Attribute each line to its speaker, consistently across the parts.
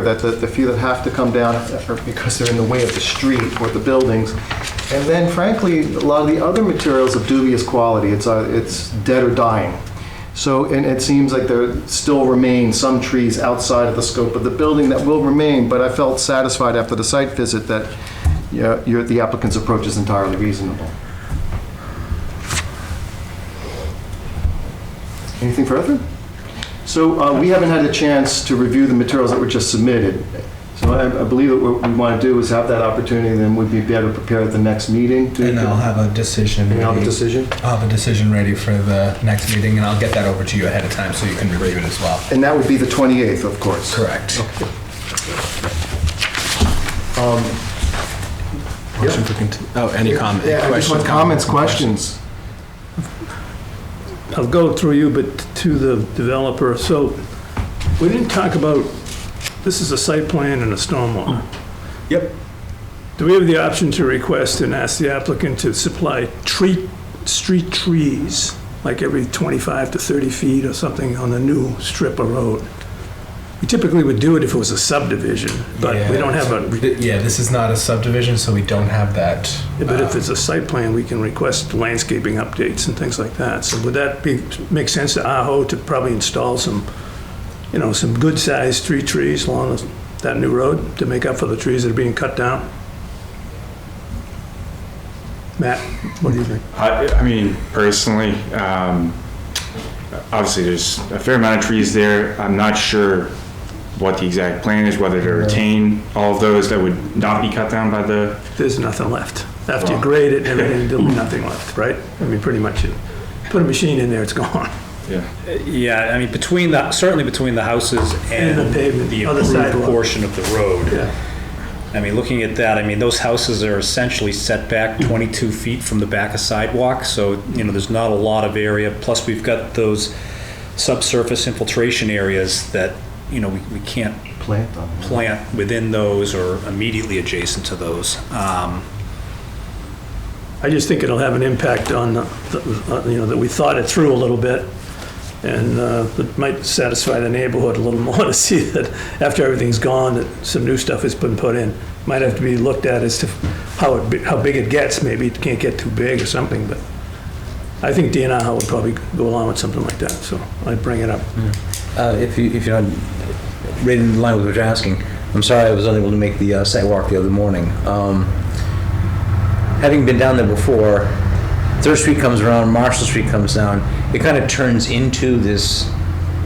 Speaker 1: that the, the few that have to come down are because they're in the way of the street or the buildings. And then frankly, a lot of the other materials of dubious quality, it's, uh, it's dead or dying. So, and it seems like there still remain some trees outside of the scope of the building that will remain, but I felt satisfied after the site visit that, you know, your, the applicant's approach is entirely reasonable. Anything further? So uh, we haven't had a chance to review the materials that were just submitted. So I I believe that what we want to do is have that opportunity, and then we'd be better prepared at the next meeting. to-
Speaker 2: And I'll have a decision.
Speaker 1: And have a
Speaker 2: ready-
Speaker 1: decision.
Speaker 2: I'll have a decision ready for the next meeting, and I'll get that over to you ahead of time so you can review it as well.
Speaker 1: And that would be the 28th, of course.
Speaker 2: Correct.
Speaker 3: Motion for conti- Oh, any comment?
Speaker 1: Yeah, I just
Speaker 3: question,
Speaker 1: want comments, questions.
Speaker 4: I'll go through you, but to the developer. So we didn't talk about, this is a site plan and a stormwater.
Speaker 2: Hmm. Yep.
Speaker 4: Do we have the option to request and ask the applicant to supply tree, street trees, like every 25 to 30 feet or something on a new strip of road? We typically would do it if it was a subdivision, but we
Speaker 2: Yeah.
Speaker 4: don't have a,
Speaker 2: Th- Yeah, this is not a subdivision, so we don't have that.
Speaker 4: but if
Speaker 2: uh,
Speaker 4: it's a site plan, we can request landscaping updates and things like that. So would that be, make sense to Aho to probably install some, you know, some good-sized street trees along that new road to make up for the trees that are being cut down? Matt, what do you think?
Speaker 5: I, I mean, personally, um, obviously, there's a fair amount of trees there. I'm not sure what the exact plan is, whether to retain all of those that would not be cut down by the,
Speaker 4: There's nothing left. After you grade it and everything, there'll be nothing left, right? I mean, pretty much, you put a machine in there, it's gone.
Speaker 5: yeah.
Speaker 6: Yeah, I mean, between the, certainly between the houses
Speaker 4: And
Speaker 6: and
Speaker 4: the pavement,
Speaker 6: the
Speaker 4: other
Speaker 6: improved
Speaker 4: sidewalk.
Speaker 6: portion of the road.
Speaker 4: Yeah.
Speaker 6: I mean, looking at that, I mean, those houses are essentially set back
Speaker 4: Mm-hmm.
Speaker 6: 22 feet from the back of sidewalk, so, you know, there's not a lot of area. Plus, we've got those subsurface infiltration areas that, you know, we we can't
Speaker 1: Plant them.
Speaker 6: plant within those or immediately adjacent to those. Um,
Speaker 4: I just think it'll have an impact on, the- the- uh, you know, that we thought it through a little bit, and uh, it might satisfy the neighborhood a little more to see that after everything's gone, that some new stuff has been put in. Might have to be looked at as to how it, bi- how big it gets, maybe it can't get too big or something, but I think DNR would probably go along with something like that, so I'd bring it up.
Speaker 7: Uh, If you, if you're not right in line with what you're asking, I'm sorry I was unable to make the uh, site walk the other morning. Um, Having been down there before, Third Street comes around, Marshall Street comes down, it kind of turns into this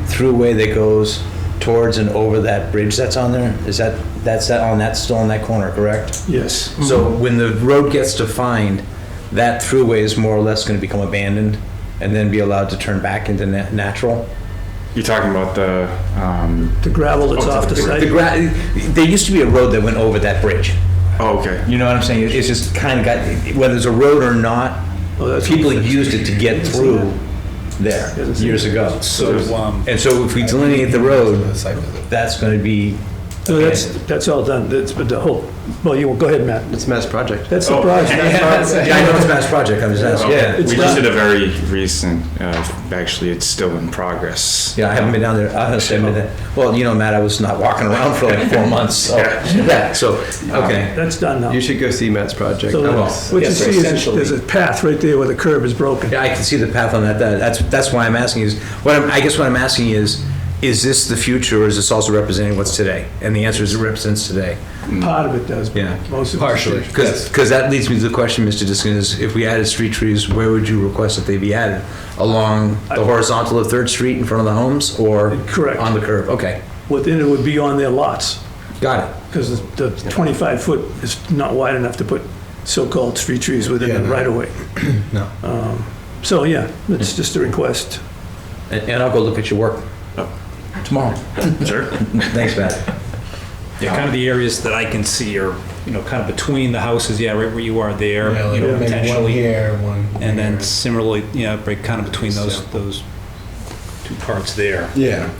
Speaker 7: throughway that goes towards and over that bridge that's on there. Is that, that's that, on that, still on that corner,
Speaker 4: Mm-hmm.
Speaker 7: correct?
Speaker 4: Yes.
Speaker 7: So when the road gets defined, that throughway is more or less going to become abandoned and then be allowed to turn back into na- natural?
Speaker 5: You're talking about the, um,
Speaker 4: The gravel that's off the
Speaker 7: The
Speaker 4: site,
Speaker 7: gra- there used to be a road that went over that bridge.
Speaker 5: oh, okay.
Speaker 7: You know what I'm saying? It's just kind of got, whether it's a road or not,
Speaker 4: Oh, that's-
Speaker 7: people used it to get through there years ago.
Speaker 6: So, um,
Speaker 7: And so if we delineate the
Speaker 2: the
Speaker 7: road,
Speaker 2: site visit.
Speaker 7: that's going to be,
Speaker 4: so that's, that's all done, that's, but the whole, well, you, go ahead, Matt.
Speaker 3: It's a mass project. Oh.
Speaker 4: That's the project.
Speaker 7: Yeah, I know it's a mass project, I'm just asking.
Speaker 5: Okay.
Speaker 7: Yeah,
Speaker 4: It's
Speaker 5: We just
Speaker 4: not-
Speaker 5: did a very recent, uh, actually, it's still in progress.
Speaker 7: yeah, I haven't been down there, I honestly haven't been there. Well, you know, Matt, I was not walking around for like four months, so, yeah, so, okay.
Speaker 4: That's done now.
Speaker 3: You should go see Matt's project.
Speaker 4: So
Speaker 7: I will.
Speaker 4: what you
Speaker 7: Yes,
Speaker 4: see is,
Speaker 7: essentially.
Speaker 4: there's a path right there where the curb is broken.
Speaker 7: Yeah, I can see the path on that. That- That's, that's why I'm asking is, what I'm, I guess what I'm asking is, is this the future or is this also representing what's today? And the answer is it represents today.
Speaker 4: Mm. Part of it does, but
Speaker 7: Yeah.
Speaker 4: most of it.
Speaker 7: Because, that leads me to the question, Mr. Diskin, is if we added street trees, where would you request that they be added? Along the horizontal of Third Street in front of the homes or?
Speaker 4: Correct.
Speaker 7: On the curb? Okay,
Speaker 4: Within it would be on their lots,
Speaker 7: got it.
Speaker 4: because the 25-foot is not wide enough to put so-called street trees
Speaker 2: Yeah,
Speaker 4: within the
Speaker 2: no.
Speaker 4: right-of-way.
Speaker 7: No. Mm.
Speaker 4: Um, So, yeah, it's just a request.
Speaker 7: And, and I'll go look at your work tomorrow.
Speaker 5: Sure.
Speaker 7: Thanks, Matt.
Speaker 6: Yeah, kind of the areas that I can see are, you know, kind of between the houses, yeah, right where you are there, you know,
Speaker 2: Maybe one
Speaker 6: potentially.
Speaker 2: here, one.
Speaker 6: And then
Speaker 2: here.
Speaker 6: similarly, you know, break kind of between those, those two parts there.
Speaker 2: Yeah.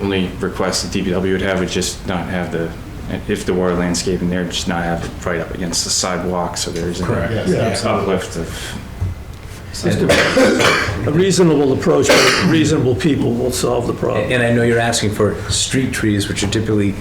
Speaker 5: Only request the DPW would have would just not have the, if there were landscaping there, just not have it right up against the sidewalk, so there isn't.
Speaker 2: Correct.
Speaker 5: an
Speaker 2: Yeah.
Speaker 5: Uplift of.
Speaker 4: A reasonable approach, but reasonable people will solve the problem.
Speaker 7: And I know you're asking for street trees, which are typically